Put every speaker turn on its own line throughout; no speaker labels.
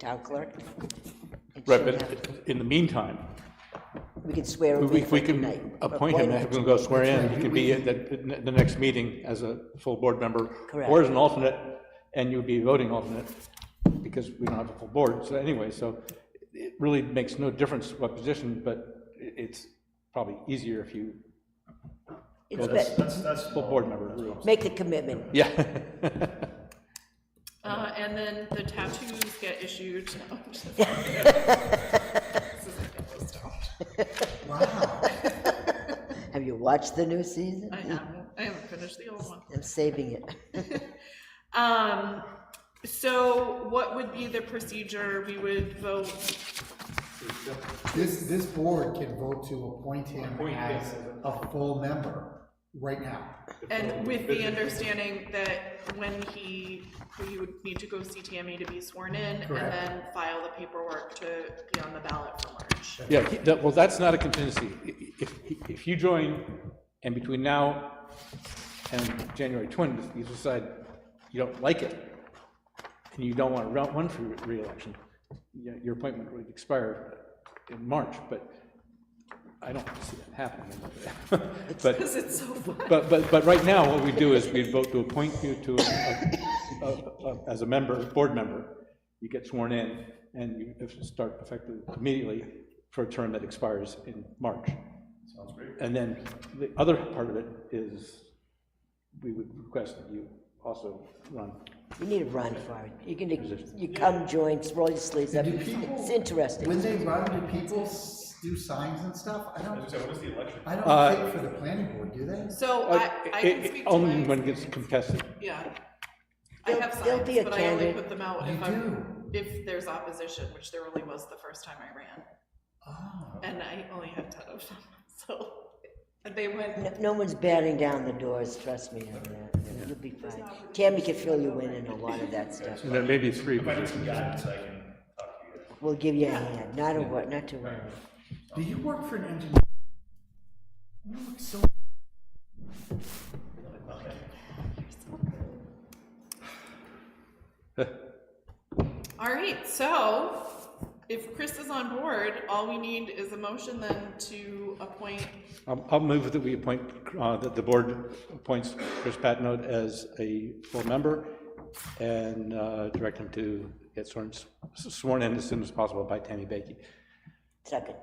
town clerk. and
Right,
she'll
but
have-
in the meantime,
We can swear him
we
in for
we can
tonight.
appoint him, have him go swear in, he can be at the, the next meeting as a full board member, or
Correct.
as an alternate, and you'd be voting alternate, because we don't have a full board, so anyway, so it really makes no difference what position, but i- it's probably easier if you,
It's
that's-
bet-
full board member rules.
Make the commitment.
Yeah.
Uh, and then the tattoos get issued. No, I'm just-
Have you watched the new season?
I haven't, I haven't finished the old one.
I'm saving it.
Um, so what would be the procedure? We would vote,
This, this board can vote to appoint him as a full member right now.
and with the understanding that when he, he would need to go CTMA to be sworn in, and
Correct.
then file the paperwork to be on the ballot for March.
Yeah, he- that- well, that's not a contingency. I- i- If, if you join, and between now and January 20th, you decide you don't like it, and you don't want to run- run for re- reelection, you know, your appointment would expire in March, but I don't see that happening. But,
Because it's so fun.
but, but, but right now, what we do is we vote to appoint you to, a- a- a- as a member, board member. You get sworn in, and you have- start effectively immediately for a term that expires in March. Sounds great. And then the other part of it is, we would request that you also run.
You need to run for it. You can, you come join, roll your sleeves up.
Do
It's
people-
it's interesting.
When they run, do people s- do signs and stuff? I don't, I
Uh,
don't think for the planning board, do they?
So I, I
It-
can
it-
speak to
Only
my-
when it gets contested.
Yeah. I
There'll-
have
there'll
signs,
be a
but I only
candidate.
put them out
You
if I'm,
do.
if there's opposition, which there really was the first time I ran.
Oh,
And I only had ten of them, so, and they went,
No- No one's batting down the doors, trust me on that. You'll be fine. Tammy can fill you in on a lot of that stuff.
And then maybe three positions.
We'll give you a hand, not a word, not to worry.
do you work for an engineer? You look so.
all right, so if Chris is on board, all we need is a motion then to appoint,
I'll, I'll move that we appoint, uh, that the board appoints Chris Patnode as a full member and uh, direct him to get sworn, sworn in as soon as possible by Tammy Baky.
Second.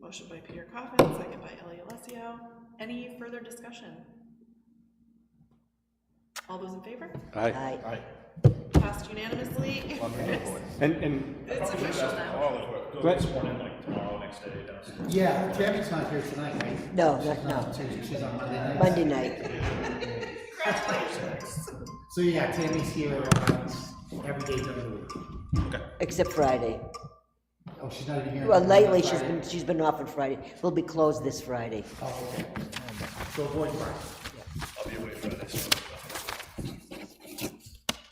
motion by Peter Coffin, second by Ellie Alessio. Any further discussion? All those in favor?
Aye.
Aye.
Passed unanimously.
And, and
It's official now.
Glenn-
Yeah, Tammy's not here tonight, right?
No,
She's
not,
not,
no,
she's she's on Monday night.
Monday night.
So yeah, Tammy's here uh, every day during the week.
Except Friday.
Oh, she's not even here.
Well,
on
lately, she's
Friday.
been, she's been off on Friday. We'll be closed this Friday.
Oh, okay. So avoid Friday.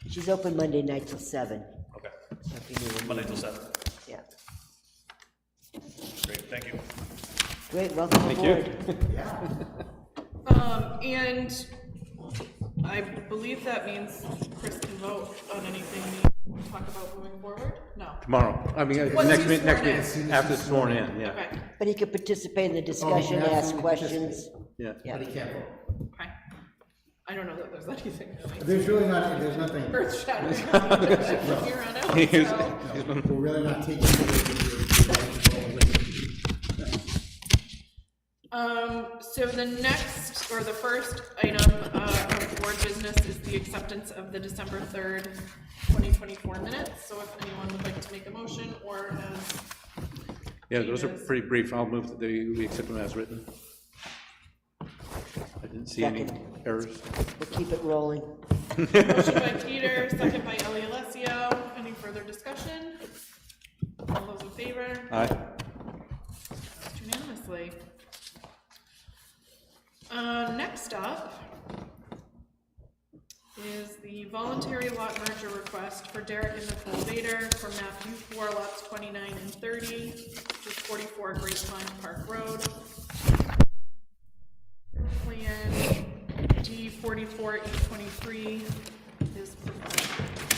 She's open Monday night till seven. Okay. Monday till seven. Yeah. Great, thank you. Great, welcome
Thank
aboard.
you.
Um, and I believe that means Chris can vote on anything we talk about moving forward? No.
Tomorrow, I mean, uh,
Once
next
he's
minute, next
sworn in.
minute, after sworn in, yeah,
Okay,
But he could participate in the discussion, ask
absolutely
questions.
yeah.
Yeah,
But he can't vote.
okay. I don't know that there's anything really
There's really not, there's nothing, we're
earth shattering from here on out,
He's-
so.
he's been-
really not taking. away the-
Um, so the next, or the first item, uh, of board business is the acceptance of the December third, twenty twenty-four minutes. So if anyone would like to make a motion or has
Yeah, those are pretty brief, I'll move that they- we accept them as written. I didn't see any
Second.
errors.
we'll keep it rolling.
Motion by Peter, second by Ellie Alessio. Any further discussion? All those in favor?
Aye.
Passed Unanimously. Uh, next up is the voluntary lot merger request for Derek and Nicole Vader for map U four lots twenty-nine and thirty, which is forty-four Great Pine Park Road. Plan D forty-four E twenty-three is provided.